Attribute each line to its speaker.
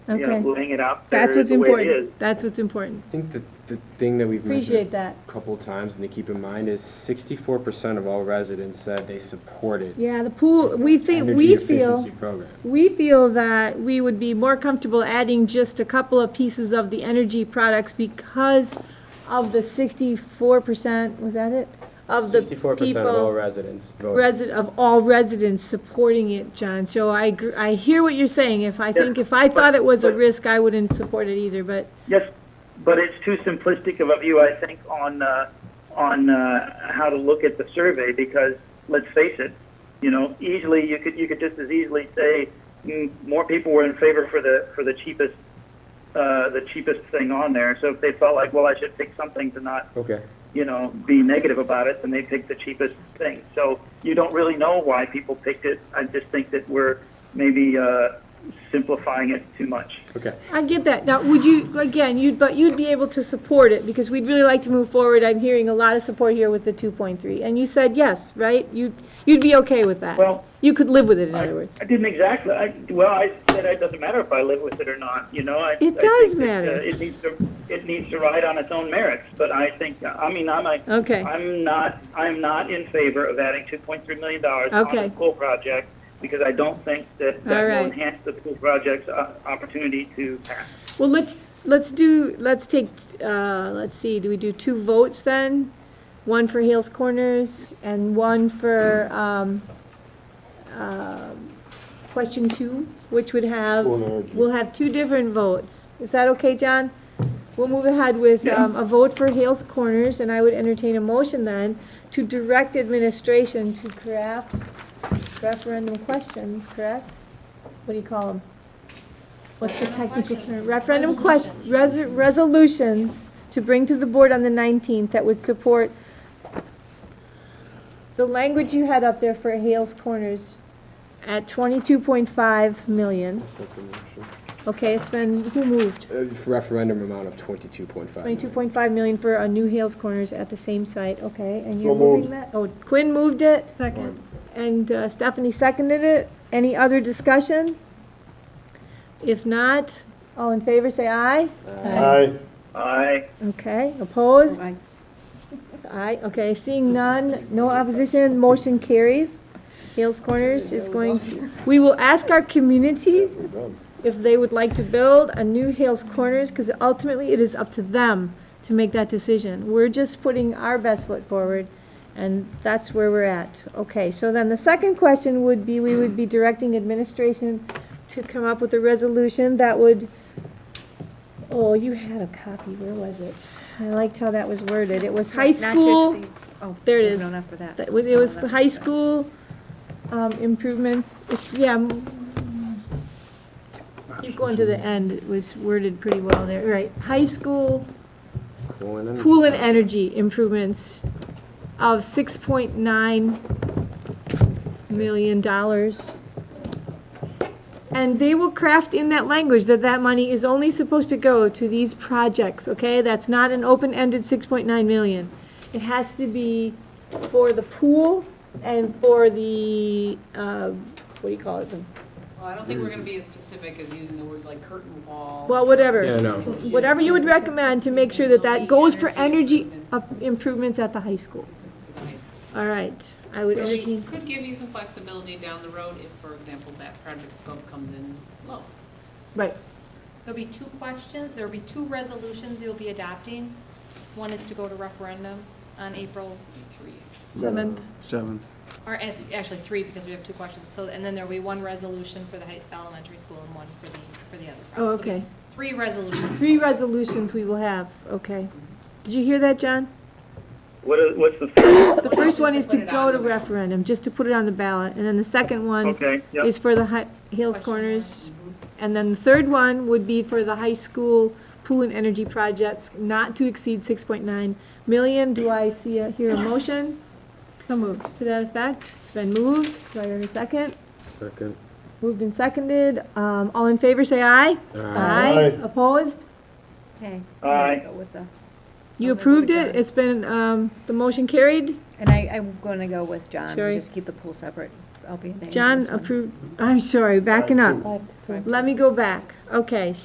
Speaker 1: you know,
Speaker 2: Okay.
Speaker 1: laying it out there
Speaker 2: That's what's
Speaker 1: the way it is.
Speaker 2: important. That's what's important.
Speaker 3: I think the, the thing that we've
Speaker 2: Appreciate
Speaker 3: mentioned
Speaker 2: that.
Speaker 3: a couple times and to keep in mind is sixty-four percent of all residents said they supported
Speaker 2: Yeah, the pool, we think,
Speaker 3: energy
Speaker 2: we feel,
Speaker 3: efficiency program.
Speaker 2: we feel that we would be more comfortable adding just a couple of pieces of the energy products because of the sixty-four percent, was that it? Of the
Speaker 3: Sixty-four percent of all
Speaker 2: people,
Speaker 3: residents voted.
Speaker 2: resident, of all residents supporting it, John. So I, gr- I hear what you're saying. If I think, if I thought it was a
Speaker 1: but-
Speaker 2: risk, I wouldn't support it either, but
Speaker 1: Yes, but it's too simplistic of a view, I think, on uh, on uh, how to look at the survey because let's face it, you know, easily you could you could just as easily say mm, more people were in favor for the for the cheapest uh, the cheapest thing on there. So if they felt like, well, I should pick something to not
Speaker 3: Okay,
Speaker 1: you know, be negative about it, then they pick the cheapest thing. So you don't really know why people picked it. I just think that we're maybe uh, simplifying it too much.
Speaker 3: okay.
Speaker 2: I get that. Now, would you, again, you'd, but you'd be able to support it, because we'd really like to move forward. I'm hearing a lot of support here with the two point three, and you said yes, right? You'd, you'd be okay with that?
Speaker 1: Well,
Speaker 2: You could live with it, in
Speaker 1: I,
Speaker 2: other words.
Speaker 1: I didn't exactly. I, well, I said it doesn't matter if I live with it or not. You know, I, I
Speaker 2: It does
Speaker 1: think that,
Speaker 2: matter.
Speaker 1: uh, it needs to it needs to ride on its own merits. But I think I mean I'm a,
Speaker 2: Okay.
Speaker 1: I'm not I'm not in favor of adding 2.3 million dollars
Speaker 2: Okay.
Speaker 1: on the school project because I don't think that that
Speaker 2: All right.
Speaker 1: will enhance the school project's uh, opportunity to pass.
Speaker 2: Well, let's, let's do, let's take, uh, let's see, do we do two votes then? One for Hales Corners and one for, um, um, question two, which would have,
Speaker 3: Full energy.
Speaker 2: we'll have two different votes. Is that okay, John? We'll move ahead with,
Speaker 1: Yeah.
Speaker 2: um, a vote for Hales Corners, and I would entertain a motion then to direct administration to craft referendum questions, correct? What do you call them? What's the technical term? Referendum question, res- resolutions to bring to the board on the 19th that would support the language you had up there for Hales Corners at 22.5 million.
Speaker 3: That's not the motion.
Speaker 2: Okay, it's been, who moved?
Speaker 3: Uh, Referendum amount of twenty-two point five.
Speaker 2: 22.5 million for a new Hales Corners at the same site, okay, and you're moving that? Oh, Quinn moved it?
Speaker 3: Second.
Speaker 2: And uh, Stephanie seconded it. Any other discussion? If not, all in favor, say aye.
Speaker 4: Aye.
Speaker 1: I
Speaker 2: Okay, opposed? Aye, okay, seeing none, no opposition, motion carries. Hales Corners is going, to- we will ask our community if they would like to build a new Hales Corners, because ultimately it is up to them to make that decision. We're just putting our best foot forward, and that's where we're at. Okay, so then the second question would be, we would be directing administration to come up with a resolution that would, oh, you had a copy, where was it? I liked how that was worded. It was high
Speaker 5: Not to
Speaker 2: school.
Speaker 5: exceed- oh,
Speaker 2: there it
Speaker 5: no,
Speaker 2: is.
Speaker 5: No, not for that. Oh,
Speaker 2: That was, it was the high school, um, improvements, it's, yeah. m- Keep going to the end, it was worded pretty well there, right, high school pool and energy improvements of six point nine million dollars. And they will craft in that language that that money is only supposed to go to these projects, okay? That's not an open-ended six point nine million. It has to be for the pool and for the, uh, what do you call it? The-
Speaker 6: Well, I don't think we're gonna be as specific as using the words like curtain wall.
Speaker 2: Well, whatever.
Speaker 3: Yeah, no.
Speaker 2: Whatever you would recommend to make sure that that goes for energy up- improvements at the high school.
Speaker 6: To the high school.
Speaker 2: All right, I would
Speaker 6: Which
Speaker 2: entertain,
Speaker 6: could give you some flexibility down the road if, for example, that project scope comes in low.
Speaker 2: right,
Speaker 7: There'll be two questions, there'll be two resolutions you'll be adopting. One is to go to referendum on April,
Speaker 6: Three.
Speaker 2: seventh,
Speaker 4: Seventh.
Speaker 7: or it's actually three because we have two questions. So, and then there'll be one resolution for the high- elementary school and one for the, for the other.
Speaker 2: Oh,
Speaker 7: So there'll be
Speaker 2: okay.
Speaker 7: Three resolutions.
Speaker 2: three resolutions we will have, okay. Did you hear that, John?
Speaker 1: what is, what's the first?
Speaker 2: The first one is to
Speaker 6: Put it
Speaker 2: go
Speaker 6: on
Speaker 2: to
Speaker 6: the-
Speaker 2: referendum, just to put it on the ballot, and then the second one
Speaker 1: okay. Yep.
Speaker 2: is for the Hi- Hills
Speaker 7: Question
Speaker 2: Corners. And then the third one would be for the high school pool and energy projects not to exceed six point nine million. Do I see a, hear a motion? So moved. To that effect, it's been moved. Do I hear a second?
Speaker 3: Second.
Speaker 2: Moved and seconded. Um, all in favor, say aye.
Speaker 4: Aye.
Speaker 2: Opposed?
Speaker 5: Okay.
Speaker 1: Aye.
Speaker 5: Go with the-
Speaker 2: You
Speaker 5: I'll make
Speaker 2: approved
Speaker 5: it
Speaker 2: it.
Speaker 5: done.
Speaker 2: It's been, um, the motion carried.
Speaker 5: And I, I'm gonna go with John,
Speaker 2: Sherry?
Speaker 5: We'll just keep the pool separate, I'll be in the. end of
Speaker 2: John
Speaker 5: this one.
Speaker 2: approved, I'm sorry, backing up.
Speaker 5: Five to-
Speaker 2: Let me go back. Okay,